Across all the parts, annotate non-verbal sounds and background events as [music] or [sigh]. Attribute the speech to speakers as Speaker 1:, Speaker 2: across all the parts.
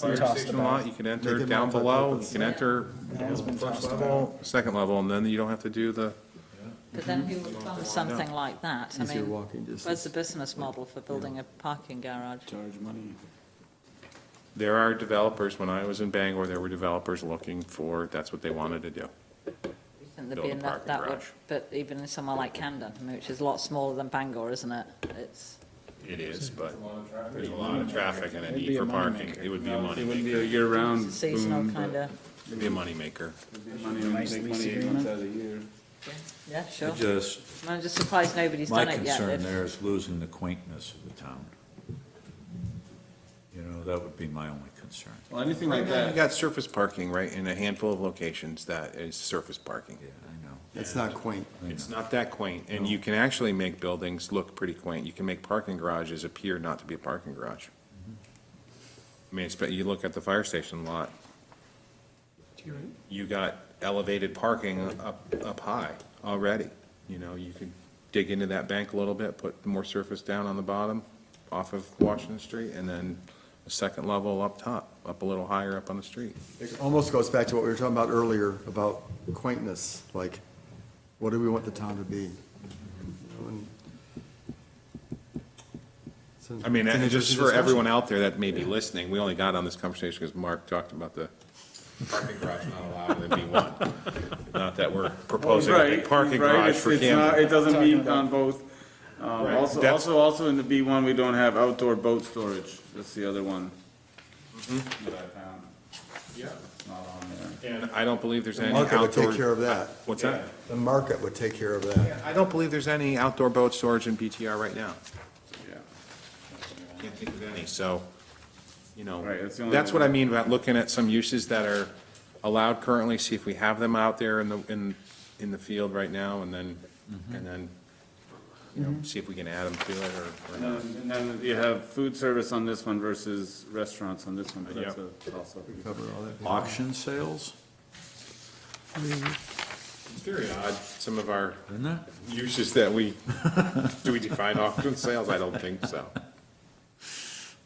Speaker 1: Fire
Speaker 2: Tossed
Speaker 1: station
Speaker 2: about.
Speaker 1: lot, you can enter
Speaker 3: Make it
Speaker 1: down
Speaker 3: multi-purpose.
Speaker 1: below, you can enter
Speaker 2: has been
Speaker 1: first
Speaker 2: tossed
Speaker 1: level, second level, and then you don't have to do the,
Speaker 4: But then who would fund something like that? I
Speaker 3: Easier
Speaker 4: mean,
Speaker 3: walking distance.
Speaker 4: where's the business model for building a parking garage?
Speaker 2: Charge money.
Speaker 1: there are developers, when I was in Bangor, there were developers looking for, that's what they wanted to do.
Speaker 4: Wouldn't there be
Speaker 1: Build a
Speaker 4: enough
Speaker 1: parking
Speaker 4: that would,
Speaker 1: garage.
Speaker 4: but even in somewhere like Camden, I mean, which is a lot smaller than Bangor, isn't it? It's,
Speaker 1: It is, but there's a lot of traffic and a need
Speaker 2: be
Speaker 1: for
Speaker 2: a
Speaker 1: parking. It would be a
Speaker 2: It wouldn't
Speaker 1: moneymaker.
Speaker 2: be a year-round
Speaker 5: Um,
Speaker 4: it's a seasonal
Speaker 2: boom,
Speaker 4: kind
Speaker 2: but
Speaker 4: of,
Speaker 1: It'd be a moneymaker.
Speaker 2: money, only
Speaker 3: Nice
Speaker 2: take
Speaker 3: lease
Speaker 2: money eight
Speaker 3: agreement.
Speaker 2: months out of the year.
Speaker 4: yeah, sure.
Speaker 5: Just,
Speaker 4: I'm just surprised nobody's
Speaker 5: my
Speaker 4: done it yet.
Speaker 5: concern
Speaker 4: They've-
Speaker 5: there is losing the quaintness of the town. You know, that would be my only concern.
Speaker 2: Well, anything like
Speaker 1: You
Speaker 2: that,
Speaker 1: got surface parking, right, in a handful of locations that is surface parking.
Speaker 5: Yeah, I know.
Speaker 3: It's not quaint.
Speaker 1: It's not that quaint, and you can actually make buildings look pretty quaint. You can make parking garages appear not to be a parking garage. I mean, it's- but you look at the fire station lot. You got elevated parking up, up high already. You know, you could dig into that bank a little bit, put more surface down on the bottom off of Washington Street, and then a second level up top, up a little higher up on the street.
Speaker 3: It almost goes back to what we were talking about earlier, about quaintness, like, what do we want the town to be? And- It's an-
Speaker 1: I mean,
Speaker 3: it's an
Speaker 1: and just
Speaker 3: interesting
Speaker 1: for
Speaker 3: discussion.
Speaker 1: everyone out there that may be listening, we only got on this conversation because Mark talked about the parking garage not allowed in the B one. Not that we're proposing a big
Speaker 2: Right,
Speaker 1: parking
Speaker 2: right,
Speaker 1: garage
Speaker 2: it's-
Speaker 1: for
Speaker 2: it's not- It
Speaker 1: camping.
Speaker 2: doesn't meet on both. Um,
Speaker 1: Right.
Speaker 2: Also,
Speaker 1: That's-
Speaker 2: also, also in the B one, we don't have outdoor boat storage, that's the other one. That I found,
Speaker 1: Mm-hmm. Yeah.
Speaker 2: It's not on there.
Speaker 1: And I don't believe there's
Speaker 3: The
Speaker 1: any
Speaker 3: market would take care
Speaker 1: outdoor,
Speaker 3: of that.
Speaker 1: what's that?
Speaker 3: The market would take care of that.
Speaker 1: I don't believe there's any outdoor boat storage in BTR right now.
Speaker 2: Yeah,
Speaker 1: Can't think of any, so, you know,
Speaker 2: Right, that's the only
Speaker 1: that's what I
Speaker 2: one.
Speaker 1: mean about looking at some uses that are allowed currently, see if we have them out there in the, in, in the field right now, and then, and then, you know, see if we can add them to it or, or
Speaker 2: And
Speaker 1: not.
Speaker 2: then- and then you have food service on this one versus restaurants on this one, but that's
Speaker 1: Yeah.
Speaker 2: a- also.
Speaker 3: Cover all that.
Speaker 5: Auction sales,
Speaker 1: It's very odd, some of our
Speaker 5: isn't it?
Speaker 1: uses that we, do we define auction sales? I don't think so.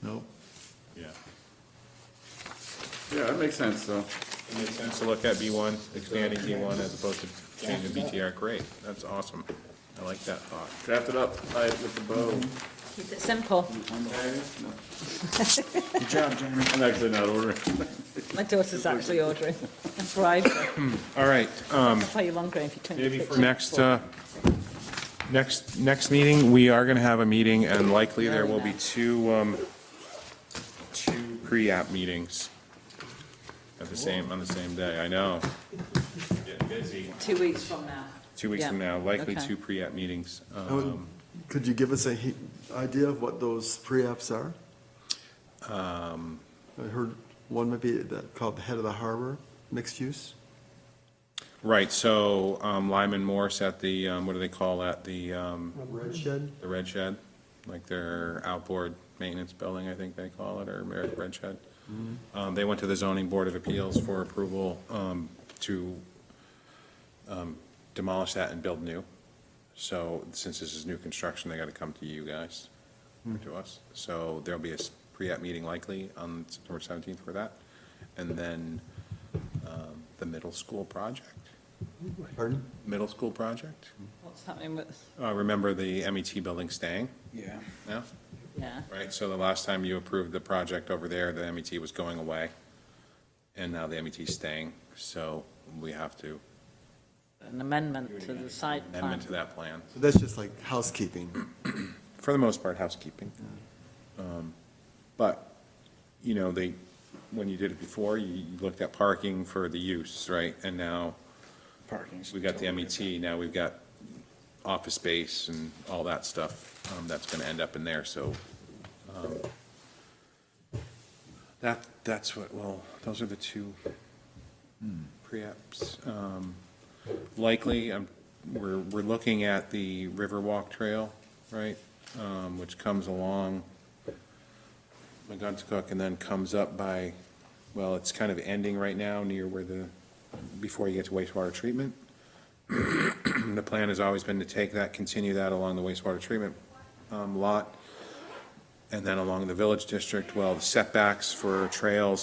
Speaker 5: Nope.
Speaker 1: Yeah.
Speaker 2: Yeah, that makes sense, though.
Speaker 1: It makes sense to look at B one, expanding B one as opposed to changing BTR, great, that's awesome. I like that thought.
Speaker 2: Draft it up, tie it with the bow.
Speaker 4: Keep it simple.
Speaker 2: Good job, Jeremy. I'm actually not ordering.
Speaker 4: My daughter's actually ordering. That's right.
Speaker 1: All right,
Speaker 5: Um,
Speaker 4: I'll pay you longer if you can.
Speaker 1: Maybe for next, uh, next, next meeting, we are going to have a meeting, and likely there will be two, um, two pre-app meetings at the same, on the same day, I know. Getting busy.
Speaker 4: Two weeks from now.
Speaker 1: Two weeks from now,
Speaker 4: Yeah,
Speaker 1: likely
Speaker 4: okay.
Speaker 1: two pre-app meetings.
Speaker 3: Now,
Speaker 1: Um,
Speaker 3: Could you give us a he- idea of what those pre-apps are?
Speaker 1: Um,
Speaker 3: I heard one might be that- called the Head of the Harbor, mixed use.
Speaker 1: Right, so um, Lyman Morse at the, um, what do they call that, the, um,
Speaker 3: Red Shed?
Speaker 1: the red shed, like their outboard maintenance building, I think they call it, or merit red shed. Um, they went to the zoning board of appeals for approval, um, to, um, demolish that and build new. So since this is new construction, they gotta come to you guys, or to us. So there'll be a s- pre-app meeting likely on September seventeenth for that. And then, um, the middle school project,
Speaker 3: Pardon?
Speaker 1: middle school project.
Speaker 4: What's happening with,
Speaker 1: Uh, remember the MET building staying
Speaker 2: Yeah.
Speaker 1: now?
Speaker 4: yeah.
Speaker 1: Right, so the last time you approved the project over there, the MET was going away, and now the MET is staying, so we have to
Speaker 4: an amendment to the site plan.
Speaker 1: amend to that plan.
Speaker 3: So That's just like housekeeping.
Speaker 1: For the most part, housekeeping. Um, But, you know, they, when you did it before, you you looked at parking for the use, right? And now
Speaker 2: Parking.
Speaker 1: we got the MET, now we've got office space and all that stuff, um, that's gonna end up in there, so, um, that, that's what, well, those are the two pre-apps. Um, likely, um, we're, we're looking at the Riverwalk Trail, right? Um, which comes along McGuntacook and then comes up by, well, it's kind of ending right now near where the, before you get to wastewater treatment. [clears throat] The plan has always been to take that, continue that along the wastewater treatment um, lot, and then along the village district. Well, the setbacks for trails